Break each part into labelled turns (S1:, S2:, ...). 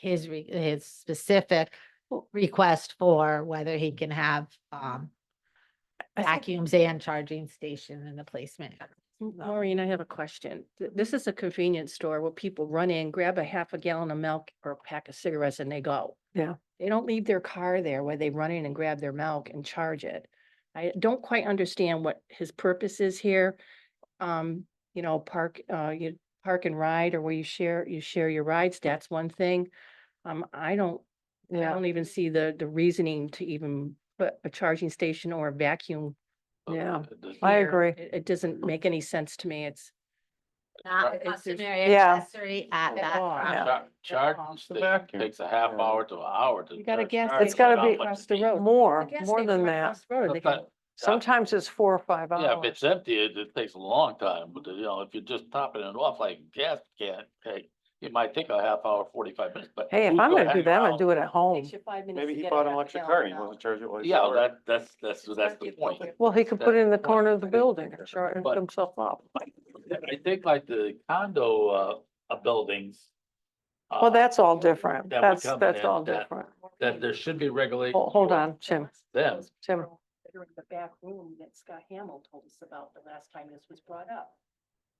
S1: his, re- his specific request for whether he can have, um,
S2: I think-
S1: vacuums and charging station in the placement.
S2: M-
S1: So-
S2: Maureen, I have a question. Th- This is a convenience store where people run in, grab a half a gallon of milk or a pack of cigarettes and they go.
S3: Yeah.
S2: They don't leave their car there where they run in and grab their milk and charge it. I don't quite understand what his purpose is here. Um, you know, park, uh, you park and ride or where you share, you share your rides, that's one thing. Um, I don't, I
S3: Yeah,
S2: don't even see the, the reasoning to even put a charging station or a vacuum
S3: yeah. I
S4: Well,
S2: here.
S3: agree.
S2: It, it doesn't make any sense to me. It's,
S1: Not
S2: Uh,
S1: a
S2: it's- it's-
S1: customary
S3: Yeah. Oh,
S1: accessory at
S2: At
S1: that.
S2: all.
S1: property.
S4: Charging
S2: It's a
S4: station
S2: vacuum.
S4: takes a half
S5: Yeah.
S4: hour to an hour to.
S2: You got a
S4: charge
S2: gas
S4: cars.
S3: It's gotta be
S4: How much
S2: across
S4: it
S2: the
S4: needs.
S2: road.
S3: More,
S2: gas
S3: more
S2: station
S3: than
S2: right
S3: that.
S2: across the road,
S4: But
S2: they
S4: that-
S2: can-
S3: Sometimes it's four or five
S4: Yeah, if
S3: hours.
S4: it's empty, it, it takes a long time, but you know, if you're just topping it off like gas can, hey, it might take a half hour, forty-five minutes, but.
S3: Hey, if
S4: who's
S3: I'm gonna do
S4: hang
S3: that, I'll
S4: around?
S3: do it at home.
S2: Takes you five minutes
S5: Maybe
S2: to
S5: he
S2: get a
S5: bought an
S2: half
S5: electric
S2: gallon
S5: car, and he
S2: out.
S5: wasn't charging it while he was at
S4: Yeah,
S5: work.
S4: that, that's, that's, that's the point.
S3: Well, he could put it in the corner of the building and char- and
S4: But-
S3: put himself up.
S4: I think like the condo, uh, uh, buildings. uh,
S3: Well, that's all different.
S4: that would
S3: That's,
S4: come
S3: that's
S4: in
S3: all
S4: that-
S3: different.
S4: That there should be regulations.
S3: Hold, hold
S4: for
S3: on, Tim.
S4: Them,
S3: Tim.
S2: They're in the back room that Scott Hamel told us about the last time this was brought up.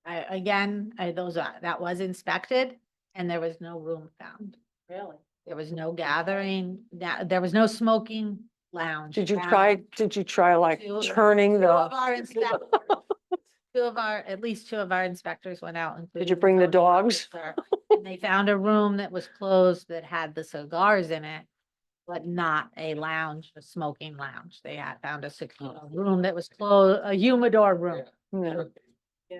S1: I, again, I, those, are- that was inspected and there was no room found.
S2: Really?
S1: There was no gathering, that, there was no smoking lounge.
S3: Did you
S1: found.
S3: try, did you try like
S1: Two-
S3: turning
S1: Two of
S3: the,
S1: our inspectors, two of our, at least two of our inspectors went out.
S3: did
S1: including
S3: you bring the
S1: zoning
S3: dogs?
S1: officer, And they found a room that was closed that had the cigars in it, but not a lounge, a smoking lounge. They had found a secure
S3: Oh.
S1: room that was closed, a humidor room.
S3: No.
S2: Yeah.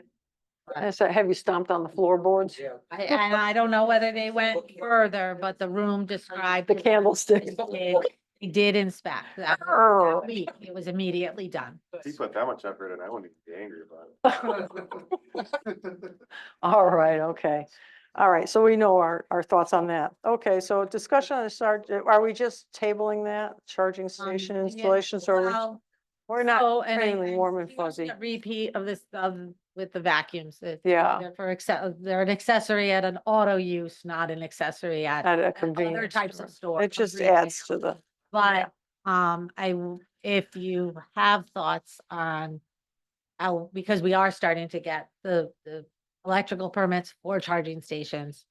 S3: I said, have you stomped on the floorboards?
S1: I, and I don't know whether they went further, but the room described.
S3: The
S1: was-
S3: candlestick?
S1: They they did inspect that.
S3: Err.
S1: that week. It was immediately done.
S5: He put that much effort in, I wouldn't be angry about it.
S3: All right, okay. All right, so we know our, our thoughts on that. Okay, so discussion on the charge, are we just tabling that, charging
S1: Um,
S3: station
S1: yeah,
S3: installations, or we-
S1: well,
S3: we're not,
S1: so, and I-
S3: friendly,
S1: I'm
S3: warm and
S1: seeing a
S3: fuzzy.
S1: Repeat of this, of, with the vacuums. that
S3: yeah,
S1: They're for, acce- they're an accessory at an auto use, not an accessory at
S3: at a
S1: other
S3: convenience
S1: types
S3: store.
S1: of store.
S3: It just adds to the, yeah.
S1: But, um, I, w- if you have thoughts on how, because we are starting to get the, the electrical permits for charging stations.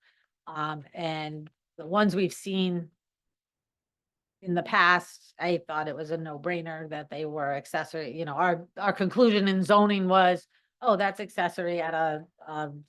S1: Um, and the ones we've seen in the past, I thought it was a no-brainer that they were accessory, you know, our, our conclusion in zoning was, oh, that's accessory at a, um,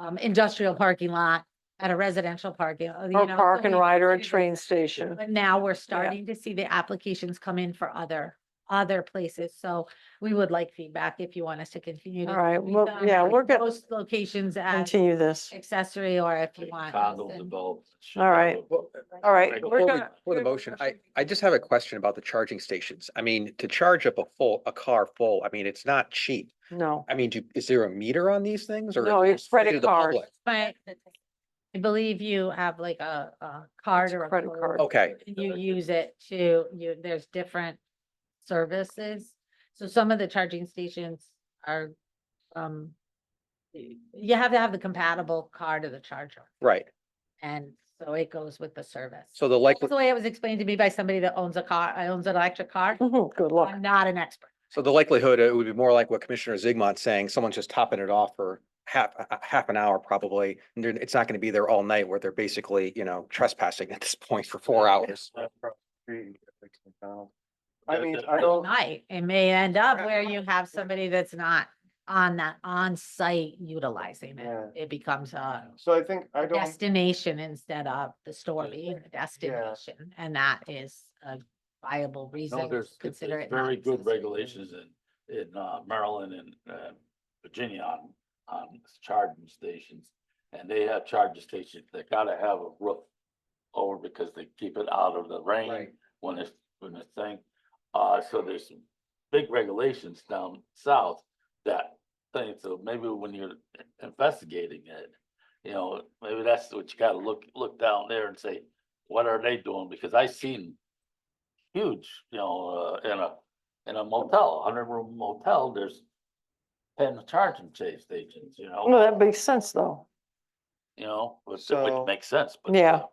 S1: um, industrial parking lot, at a residential parking, uh, you know.
S3: or
S1: so
S3: park and
S1: we
S3: ride or a
S1: included
S3: train
S1: that.
S3: station.
S1: But now we're starting to see the applications come in for other, other places. So we would like feedback if you want us to continue. to
S3: All right,
S1: keep
S3: well,
S1: them
S3: yeah,
S1: at
S3: we're good.
S1: Those locations as
S3: Continue this.
S1: accessory or if you want. us
S4: condo
S1: to-
S4: development.
S3: All right.
S6: Well, uh,
S3: All right,
S4: Right,
S3: we're
S6: Before we-
S3: gonna.
S6: before the motion, I, I just have a question about the charging stations. I mean, to charge up a full, a car full, I mean, it's not cheap.
S3: No,
S6: I mean, do, is there a meter on these things or?
S3: no,
S6: is it
S3: it's credit
S6: to the
S3: card.
S6: public?
S1: But I believe you have like a, a card
S3: It's
S1: or a
S3: credit
S1: code,
S3: card.
S6: Okay,
S1: And you use it to, you, there's different services. So some of the charging stations are, um, y- you have to have the compatible card of the charger.
S6: right.
S1: And so it goes with the service.
S6: So the
S1: That's
S6: likely,
S1: the way it was explained to me by somebody that owns a car, uh, owns an electric car.
S3: Mhm, Good luck.
S1: I'm not an expert.
S6: so the likelihood, it would be more like what Commissioner Zigmund's saying, someone's just topping it off for half, a- a- half an hour probably. And they're- it's not going to be there all night where they're basically, you know, trespassing at this point for four hours.
S5: I mean, I don't,
S1: Might, it may end up where you have somebody that's not on that on-site utilizing it.
S5: Yeah.
S1: It becomes a
S5: so I think, I don't,
S1: destination instead of the store being a destination. And that is a viable reason
S4: No,
S1: to
S4: there's, it's-
S1: consider
S4: it's
S1: it. not
S4: very good
S1: accessory.
S4: regulations in, in uh, Maryland and, uh, Virginia on, on charging stations. And they have charging stations, they gotta have a roof over because they keep it out of the rain when it's, when it's thing. Uh, so there's some big regulations down south that thing, so maybe when you're investigating it, you know, maybe that's what you gotta look, look down there and say, what are they doing? Because I seen huge, you know, uh, in a, in a motel, hundred room motel, there's ten charging cha- stations, you
S3: Well,
S4: know,
S3: that makes sense though.
S4: you know, which,
S5: So-
S4: which makes sense, but.
S3: Yeah.